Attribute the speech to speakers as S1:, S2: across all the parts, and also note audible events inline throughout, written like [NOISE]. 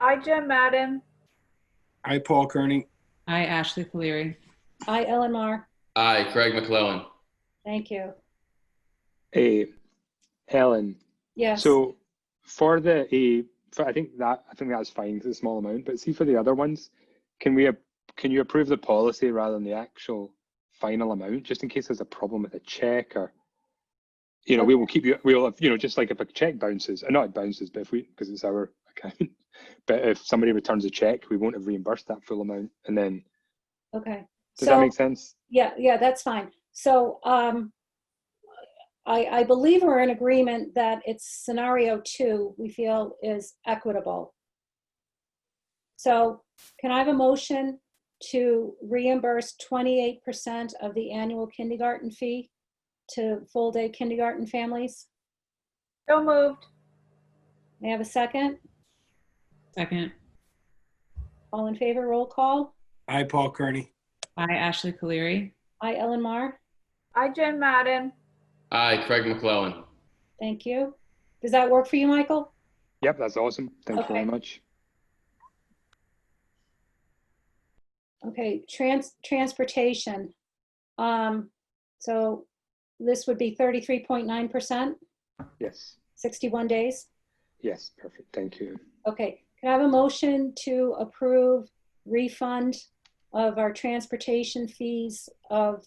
S1: I, Jen Madden.
S2: I, Paul Kearney.
S3: I, Ashley Caleri.
S4: Aye, Ellen Mar.
S5: Aye, Craig McClellan.
S4: Thank you.
S6: A, Helen.
S4: Yes.
S6: So for the A, for, I think that I think that's fine for the small amount. But see for the other ones, can we ap- can you approve the policy rather than the actual final amount, just in case there's a problem with a check or, you know, we will keep you. We'll have, you know just like if a check bounces, uh, not it bounces, but if we because it's our account. [LAUGHS] But if somebody returns a check, we won't have reimbursed that full amount. And then
S4: Okay.
S6: does that
S4: So,
S6: make sense?
S4: yeah, yeah, that's fine. So, um, I, I believe we're in agreement that it's scenario two, we feel is equitable. So can I have a motion to reimburse twenty-eight percent of the annual kindergarten fee to full-day kindergarten families?
S1: So moved.
S4: May I have a second?
S3: Second.
S4: All in favor, roll call.
S2: I, Paul Kearney.
S3: I, Ashley Caleri.
S4: Aye, Ellen Mar.
S1: I, Jen Madden.
S5: Aye, Craig McClellan.
S4: Thank you. Does that work for you, Michael?
S6: Yep, that's awesome. Thank you very
S4: Okay.
S6: much.
S4: Okay, trans, transportation. Um, so this would be thirty-three point nine percent,
S6: Yes.
S4: sixty-one days.
S6: Yes. Perfect. Thank you.
S4: Okay, can I have a motion to approve refund of our transportation fees of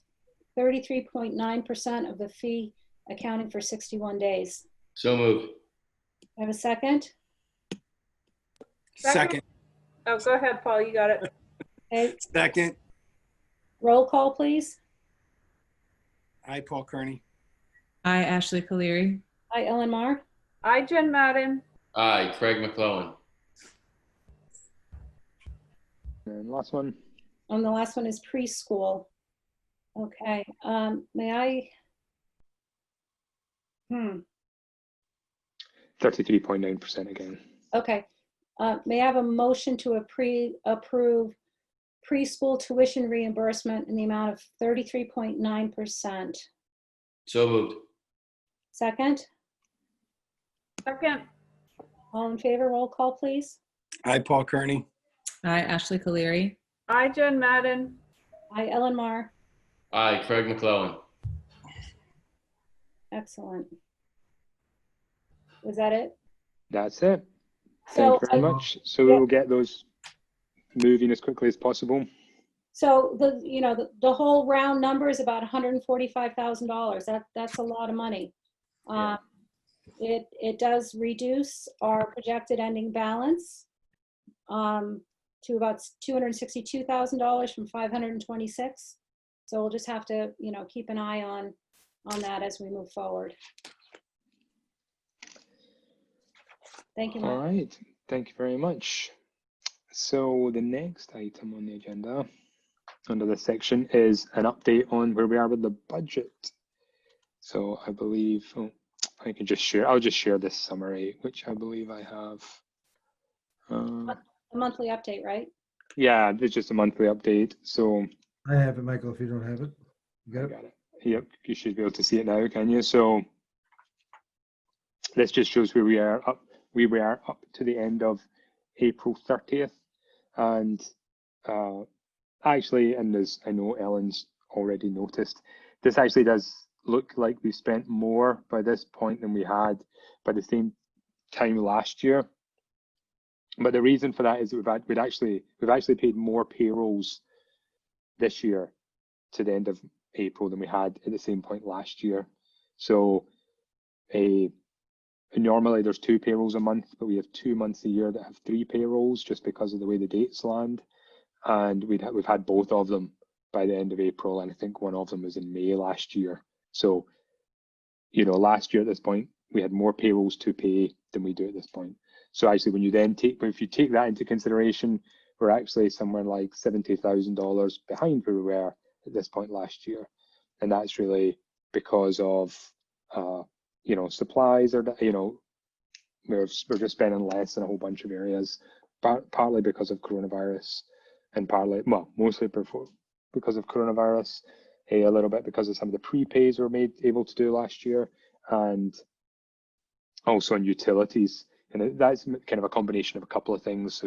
S4: thirty-three point nine percent of the fee accounting for sixty-one days?
S5: So moved.
S4: I have a second?
S1: Second.
S2: Second,
S1: Oh, go ahead, Paul, you got it.
S4: Okay,
S2: second.
S4: roll call, please.
S2: I, Paul Kearney.
S3: I, Ashley Caleri.
S4: Hi, Ellen Mar.
S1: I, Jen Madden.
S5: Aye, Craig McClellan.
S6: And last one.
S4: And the last one is preschool. Okay, um, may I? Hmm,
S6: Thirty-three point nine percent again.
S4: okay. Uh, may I have a motion to appre- approve preschool tuition reimbursement in the amount of thirty-three point nine percent?
S5: So moved.
S4: Second,
S1: Second.
S4: all in favor, roll call, please.
S2: I, Paul Kearney.
S3: I, Ashley Caleri.
S1: I, Jen Madden.
S4: Hi, Ellen Mar.
S5: Aye, Craig McClellan.
S4: Excellent. Was that it?
S6: That's it.
S4: So
S6: Thank you very
S4: I-
S6: much. So
S4: yeah.
S6: we'll get those moving as quickly as possible.
S4: So the, you know, the, the whole round number is about hundred and forty-five thousand dollars. That, that's a lot of money.
S6: Yeah.
S4: Um, It, it does reduce our projected ending balance um, to about two hundred and sixty-two thousand dollars from five hundred and twenty-six. So we'll just have to, you know, keep an eye on, on that as we move forward. Thank you,
S6: All
S4: Mike.
S6: right. Thank you very much. So the next item on the agenda under this section is an update on where we are with the budget. So I believe oh, I can just share. I'll just share this summary, which I believe I have. Uh,
S4: A monthly update, right?
S6: yeah, it's just a monthly update. So
S7: I have it, Michael, if you don't have it. You got
S6: I
S7: it?
S6: got it. Yep, you should be able to see it now, can you? So this just shows where we are up. We were up to the end of April thirtieth, and uh, actually, and as I know, Ellen's already noticed, this actually does look like we spent more by this point than we had by the same time last year. But the reason for that is that we've had, we'd actually we've actually paid more payrolls this year to the end of April than we had at the same point last year. So, a normally there's two payrolls a month, but we have two months a year that have three payrolls just because of the way the dates land, and we'd ha- we've had both of them by the end of April, and I think one of them was in May last year. So, you know, last year at this point we had more payrolls to pay than we do at this point. So actually, when you then take if you take that into consideration, we're actually somewhere like seventy thousand dollars behind where we were at this point last year, and that's really because of uh, you know supplies or you know we're we're just spending less in a whole bunch of areas, par- partly because of coronavirus, and partly well mostly before, because of coronavirus, eh, a little bit because of some of the prepays we were made able to do last year, and also on utilities, and it- that's kind of a combination of a couple of things. So